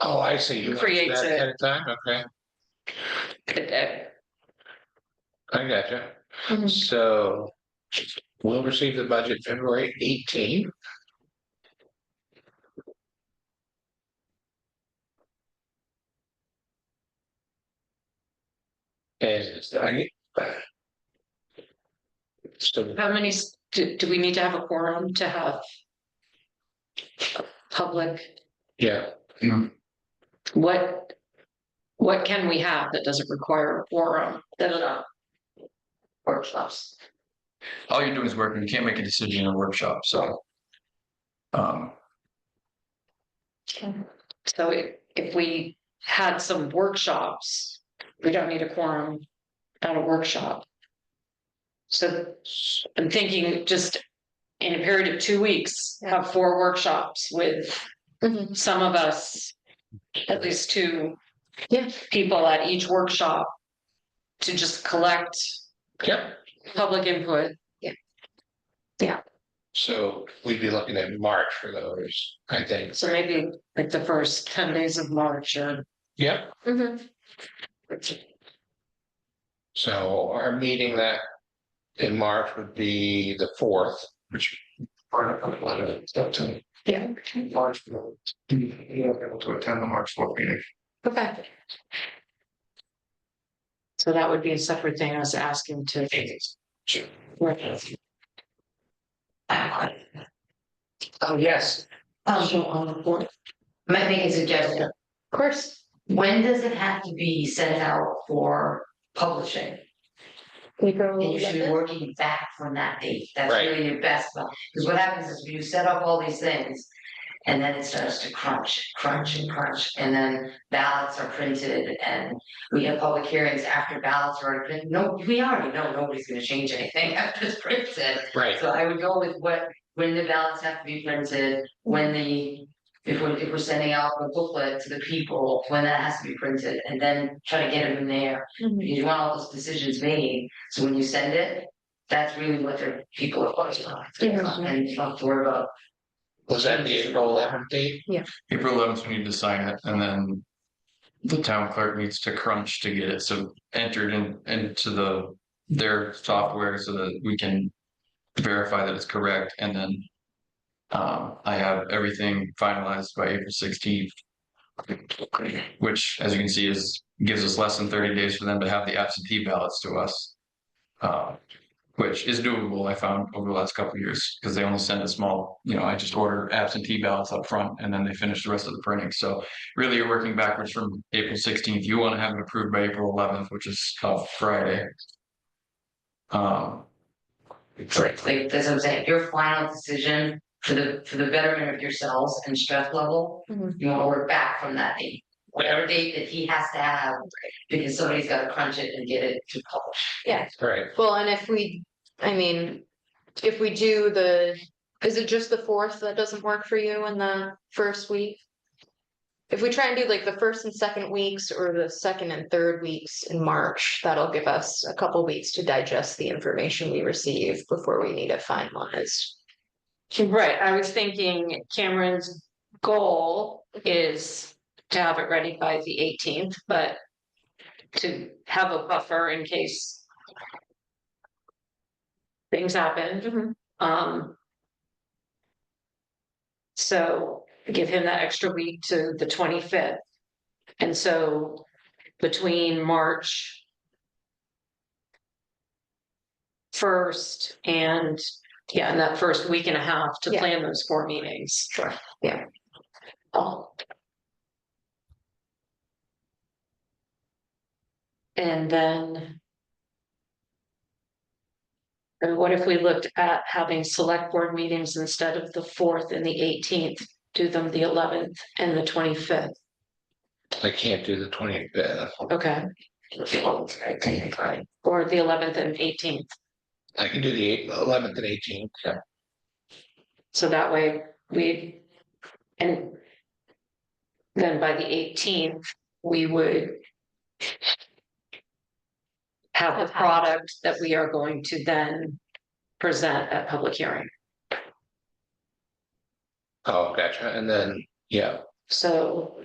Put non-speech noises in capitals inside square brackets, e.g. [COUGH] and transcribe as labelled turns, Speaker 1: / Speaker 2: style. Speaker 1: Oh, I see. You want to do
Speaker 2: Creates
Speaker 1: that
Speaker 2: it.
Speaker 1: ahead of Time, okay,
Speaker 2: today.
Speaker 1: I gotcha.
Speaker 2: Mhm.
Speaker 1: Mm-hmm. So we'll receive the budget February eighteen. And I. So
Speaker 2: How many, s- do, do we need to have a quorum to have a public,
Speaker 1: Yeah,
Speaker 2: what, what can we have that doesn't require a quorum that are not workshops?
Speaker 3: all you're doing is working, you can't make a decision in a workshop, so. Um,
Speaker 2: So if, if we had some workshops, we don't need a quorum at a workshop. So I'm thinking just in a period of two weeks, have four workshops with
Speaker 4: Mm-hmm.
Speaker 2: some of us, at least two
Speaker 4: Yeah.
Speaker 2: people at each workshop to just collect
Speaker 1: yeah,
Speaker 2: public input.
Speaker 1: so we'd be looking at March for those, I think.
Speaker 2: So maybe like the first ten days of March or
Speaker 1: Yep, so our meeting that in March would be the fourth, which. part of a lot of it, it's up to
Speaker 4: Yeah,
Speaker 1: March. You'll be able to attend the March fourth meeting.
Speaker 4: okay.
Speaker 2: so that would be a separate thing I was asking to.
Speaker 1: Oh, yes.
Speaker 2: So on the board.
Speaker 4: Might make a suggestion. Of course. When does it have to be sent out for publishing? And you should be working back from that date. That's
Speaker 1: Right.
Speaker 4: really your best, because what happens is you set up all these things. And then it starts to crunch, crunch and crunch, and then ballots are printed and we have public hearings after ballots are printed. No, we already know nobody's gonna change anything [LAUGHS] after it's printed.
Speaker 1: Right,
Speaker 4: So I would go with what, when the ballots have to be printed, when the, if we're, if we're sending out a booklet to the people, when that has to be printed, and then try to get them in there. Because you want all those decisions made, so when you send it, that's really what their people are focused on. And you don't have to worry about,
Speaker 1: was that the April eleventh date?
Speaker 3: April eleventh, we need to sign it, and then. The town clerk needs to crunch to get it, so entered in, into the, their software so that we can. Verify that it's correct, and then. Um, I have everything finalized by April sixteenth. Which, as you can see, is, gives us less than thirty days for them to have the absentee ballots to us. Uh, which is doable, I found over the last couple of years, because they only send a small, you know, I just order absentee ballots up front and then they finish the rest of the printing. So really you're working backwards from April sixteenth. You want to have it approved by April eleventh, which is uh, Friday. Um,
Speaker 4: like, that's what I'm saying, your final decision for the, for the betterment of yourselves and stress level.
Speaker 2: Mhm.
Speaker 4: You wanna work back from that date, whatever date that he has to have, because somebody's gotta crunch it and get it to publish.
Speaker 1: Right,
Speaker 5: Well, and if we, I mean, if we do the, is it just the fourth that doesn't work for you in the first week? If we try and do like the first and second weeks or the second and third weeks in March, that'll give us a couple weeks to digest the information we receive before we need it finalized.
Speaker 2: Right, I was thinking Cameron's goal is to have it ready by the eighteenth, but to have a buffer in case things happen. Um. So give him that extra week to the twenty-fifth. And so between March first and yeah, in that first week and a half to
Speaker 5: Yeah.
Speaker 2: plan those four meetings.
Speaker 5: Sure, yeah.
Speaker 2: Um, And then. And what if we looked at having select board meetings instead of the fourth and the eighteenth, do them the eleventh and the twenty-fifth?
Speaker 1: I can't do the uh, twenty fifth.
Speaker 2: Okay, or the eleventh and eighteenth.
Speaker 1: I can do the eight- 11th and eighteenth, yeah.
Speaker 2: So that way we, and then by the eighteenth, we would have the
Speaker 5: Okay.
Speaker 2: product that we are going to then present at public hearing.
Speaker 1: Oh, gotcha, and then, yeah,
Speaker 2: So